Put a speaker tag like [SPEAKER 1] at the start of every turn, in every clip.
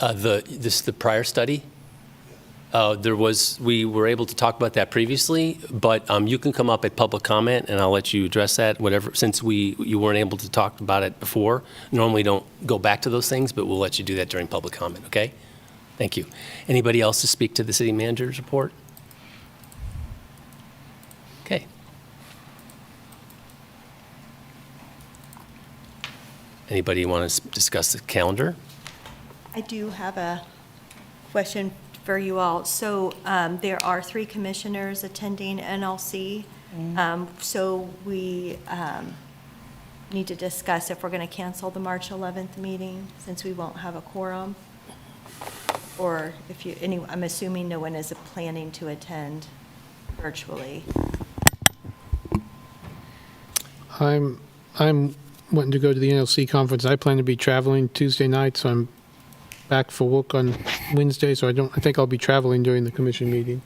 [SPEAKER 1] Uh, The, this, the prior study? Uh, There was, we were able to talk about that previously, but um, you can come up at public comment, and I'll let you address that, whatever, since we, you weren't able to talk about it before. Normally don't go back to those things, but we'll let you do that during public comment, okay? Thank you. Anybody else to speak to the city manager's report? Okay. Anybody want to discuss the calendar?
[SPEAKER 2] I do have a question for you all. So um, there are three commissioners attending NLC, Um, so we um, need to discuss if we're going to cancel the March 11th meeting, since we won't have a quorum, or if you, any, I'm assuming no one is planning to attend virtually.
[SPEAKER 3] I'm, I'm wanting to go to the NLC conference. I plan to be traveling Tuesday night, so I'm back for work on Wednesday, so I don't, I think I'll be traveling during the commission meeting.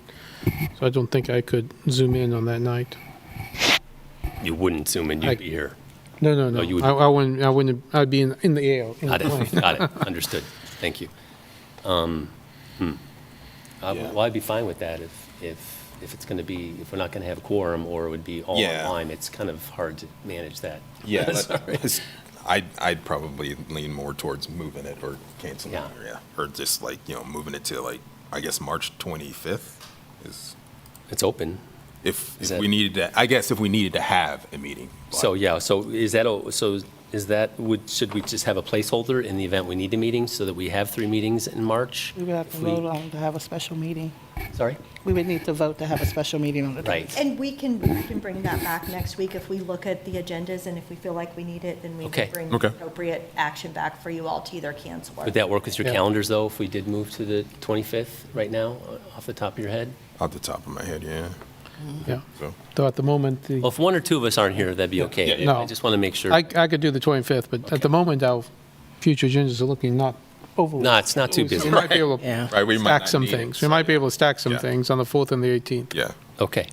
[SPEAKER 3] So I don't think I could zoom in on that night.
[SPEAKER 1] You wouldn't zoom in,
[SPEAKER 3] I-
[SPEAKER 1] you'd be here.
[SPEAKER 3] No, no,
[SPEAKER 1] you would-
[SPEAKER 3] no. I, I wouldn't, I wouldn't, I'd be in, in the air. in the
[SPEAKER 1] Got it,
[SPEAKER 3] plane.
[SPEAKER 1] got it, understood, thank you. Um, hmm. I would- Well, I'd be fine with that if, if, if it's going to be, if we're not going to have a quorum or it would be all
[SPEAKER 4] Yeah.
[SPEAKER 1] online, it's kind of hard to manage that.
[SPEAKER 4] Yeah, let-
[SPEAKER 1] Sorry.
[SPEAKER 4] let's- I'd, I'd probably lean more towards moving it or canceling it,
[SPEAKER 1] Yeah.
[SPEAKER 4] or yeah, or just like, you know, moving it to like, I guess, March 25th is,
[SPEAKER 1] It's open,
[SPEAKER 4] if,
[SPEAKER 1] Is
[SPEAKER 4] if
[SPEAKER 1] that-
[SPEAKER 4] we needed to, I guess if we needed to have a meeting. but-
[SPEAKER 1] so, yeah, so is that, o- so is that, would, should we just have a placeholder in the event we need a meeting so that we have three meetings in March?
[SPEAKER 5] We would have to
[SPEAKER 1] If we-
[SPEAKER 5] vote on to have a special meeting.
[SPEAKER 1] Sorry?
[SPEAKER 5] We would need to vote to have a special meeting on the
[SPEAKER 1] Right.
[SPEAKER 5] 10th.
[SPEAKER 2] And we can, we can bring that back next week if we look at the agendas, and if we feel like we need it, then we
[SPEAKER 1] Okay.
[SPEAKER 2] can bring
[SPEAKER 4] Okay.
[SPEAKER 2] appropriate action back for you all to either cancel or.
[SPEAKER 1] Would that work with your
[SPEAKER 3] Yeah.
[SPEAKER 1] calendars, though, if we did move to the 25th right now, uh, off the top of your head?
[SPEAKER 4] Off the top of my head, yeah,
[SPEAKER 3] Yeah.
[SPEAKER 4] so.
[SPEAKER 3] Though at the moment, the,
[SPEAKER 1] Well, if one or two of us aren't here, that'd be okay.
[SPEAKER 4] yeah, yeah.
[SPEAKER 3] No.
[SPEAKER 1] I just want to make Oh, sure.
[SPEAKER 3] I, I could do the 25th, but at the moment, our future agendas are looking not overly.
[SPEAKER 1] No, it's not too
[SPEAKER 3] So
[SPEAKER 1] busy.
[SPEAKER 3] We might be able
[SPEAKER 5] Yeah.
[SPEAKER 4] Right, we
[SPEAKER 3] to
[SPEAKER 4] might
[SPEAKER 3] stack
[SPEAKER 4] not
[SPEAKER 3] some
[SPEAKER 4] need it,
[SPEAKER 3] things.
[SPEAKER 4] so,
[SPEAKER 3] We might be able to stack some
[SPEAKER 4] Yeah.
[SPEAKER 3] things on the 4th and the 18th.
[SPEAKER 4] Yeah,
[SPEAKER 1] Okay,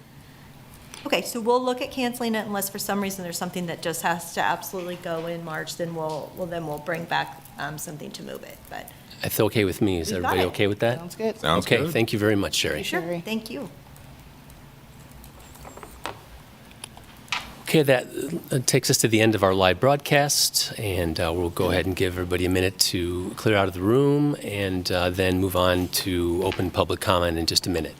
[SPEAKER 2] Okay, so we'll look at canceling it unless for some reason there's something that just has to absolutely go in March, then we'll, well, then we'll bring back um, something to move it, but,
[SPEAKER 1] that's okay with me. Is
[SPEAKER 2] You got
[SPEAKER 1] everybody
[SPEAKER 2] it.
[SPEAKER 1] okay with that?
[SPEAKER 5] Sounds good.
[SPEAKER 4] sounds
[SPEAKER 1] Okay,
[SPEAKER 4] good.
[SPEAKER 1] thank you very much, Sherry.
[SPEAKER 2] sure,
[SPEAKER 5] Sherry.
[SPEAKER 2] thank you.
[SPEAKER 1] Okay, that uh, takes us to the end of our live broadcast, and uh, we'll go ahead and give everybody a minute to clear out of the room and uh, then move on to open public comment in just a minute.